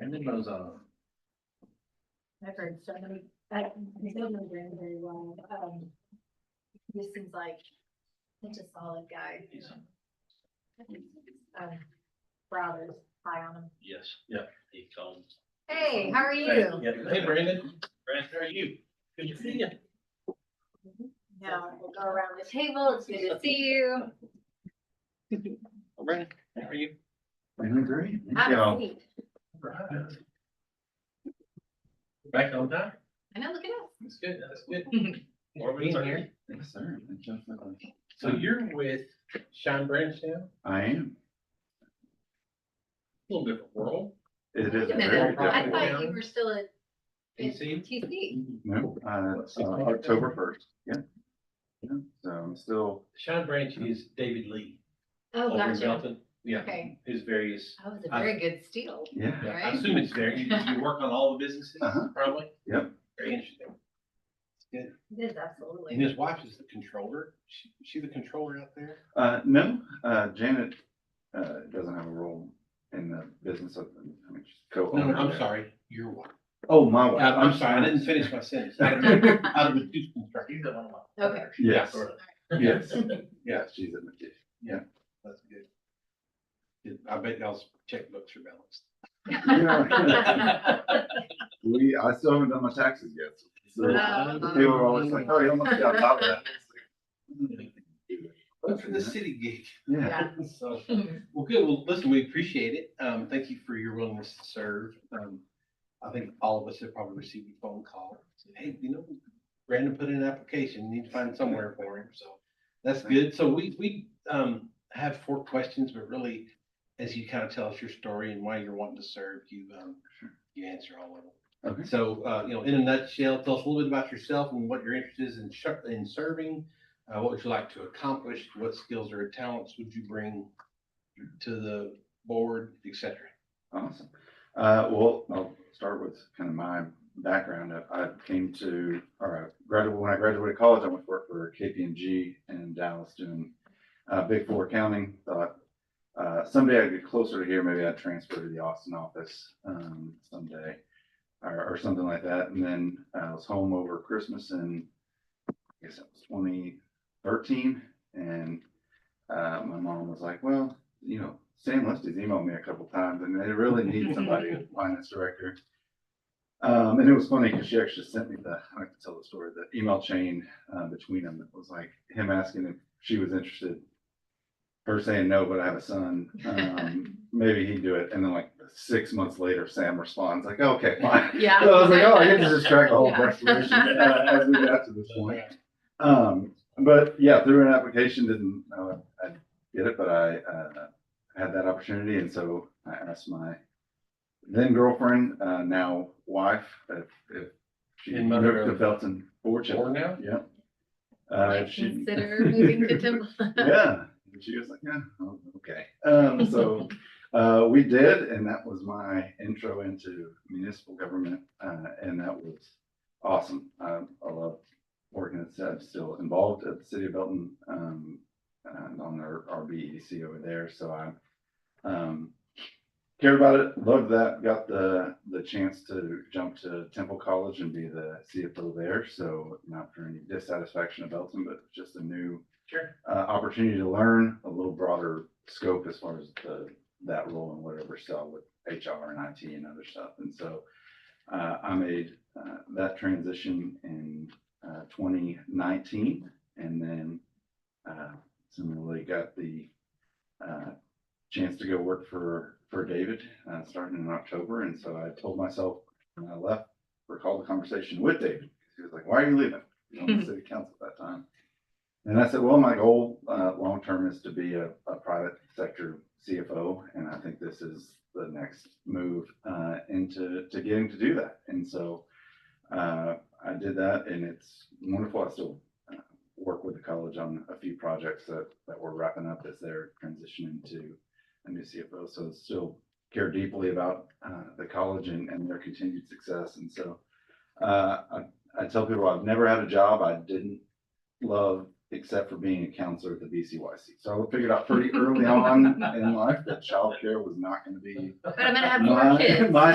Ended those uh, off. I've heard so many, I I don't know very, very well, um. This seems like such a solid guy. He's- Um, Browder's high on him. Yes, yeah, he called. Hey, how are Hey, you? yeah. Hey, Brandon. Brandon, how are you? Good to see you. Now, we'll go around the table, it's good to see you. Brandon, how are you? I'm great. Have a seat. Back on time? I know, look at us. That's good, that's good. More being here. Yes, sir. Definitely. So you're with Sean Branch now? I am. A little different world. It is Wait a a very minute, I different. thought you were still at PC? TC. No, uh, it's, uh, October first, yeah. Yeah, So I'm still, Sean Branch is David Lee. Oh, over in gotcha. Belton. Yeah, Okay. his various, That was a Uh, I- very good steal. yeah, yeah, I Right. assume it's very, you, you work on all the businesses, Uh-huh. probably? Yep. Very interesting. It is And absolutely. his wife is the controller. She, she the controller out there? uh, no, uh, Janet, uh, doesn't have a role in the business of, I mean, she's No, co-owner. no, I'm there. sorry, your wife. Oh, my Uh, wife. I'm sorry, I didn't finish my sentence. Out of- out of the two construction. He's the one. Okay. Yes, Yeah, correct. yes, Yeah, she's in the, that's good. Good. I bet y'all's checkbooks are balanced. Yeah. we, I still haven't done my taxes yet. so- so Uh, People are always like, oh, you don't must be on top of that. But for the city gig. Yeah, So, well, good. Well, listen, we appreciate it. Um, thank you for your willingness to serve. Um, I think all of us have probably received a phone call. Said, Hey, you know, Brandon put in an application, need to find somewhere for him. So that's good. So we, we, um, have four questions, but really, as you kind of tell us your story and why you're wanting to serve, you, um, you answer all of them. okay. So, uh, you know, in a nutshell, tell us a little bit about yourself and what your interest is in sh- in serving. Uh, what would you like to accomplish? What skills or talents would you bring to the board, et cetera? Awesome. Uh, well, I'll start with kind of my background. I- I came to, or I graduated, when I graduated college, I went to work for KPMG in Dallas doing, uh, Big Four accounting. Thought, uh, someday I'd get closer to here, maybe I'd transfer to the Austin office, um, someday. Or, or something like that. And then I was home over Christmas in, I guess it was twenty thirteen. And, uh, my mom was like, well, you know, Sam Lesty's emailed me a couple times and they really need somebody, finance director. Um, and it was funny because she actually sent me the, I like to tell the story, the email chain, uh, between them that was like him asking if she was interested. Her saying, no, but I have a son, um, maybe he'd do it. And then like six months later, Sam responds like, okay, fine. Yeah. So I was like, oh, I get to just track all of Yeah. our solutions, uh, as we got to this point. Um, but yeah, through an application, didn't know I get it, but I, uh, had that opportunity. And so I asked my then girlfriend, uh, now wife, if, if she In moved Monroe. to Felton Or fortune. now? Yeah. Uh, Might if she- Consider moving to Timberland. yeah. And she was like, yeah, oh, okay. Um, so uh, we did, and that was my intro into municipal government, uh, and that was awesome. Um, I, I love working at I'm still involved at the city of Belton um, and on our, our BEDC E over there. So I um, care about it, love that. Got the the chance to jump to Temple College and be the CFO there. So not for any dissatisfaction of Belton, but just a new Sure. uh, opportunity to learn a little broader scope as far as the, that role and whatever stuff with HR and IT and other stuff. And so uh, I made uh, that transition in uh, 2019 and then uh, similarly got the uh, chance to go work for, for David uh, starting in October. And so I told myself when I left, recall the conversation with David. He was like, why are you leaving? You were on the city council at that time. And I said, well, my goal, uh, long-term is to be a, a private sector CFO, and I think this is the next move, uh, into, to getting to do that. And so, uh, I did that and it's wonderful. I still uh, work with the college on a few projects that, that we're wrapping up as they're transitioning to a new CFO. So still care deeply about, uh, the college and, and their continued success. And so, uh, I, I tell people I've never had a job I didn't love except for being a counselor at the BCYC. So I figured out pretty early on in life that childcare was not going to be But I'm gonna have my- more kids. my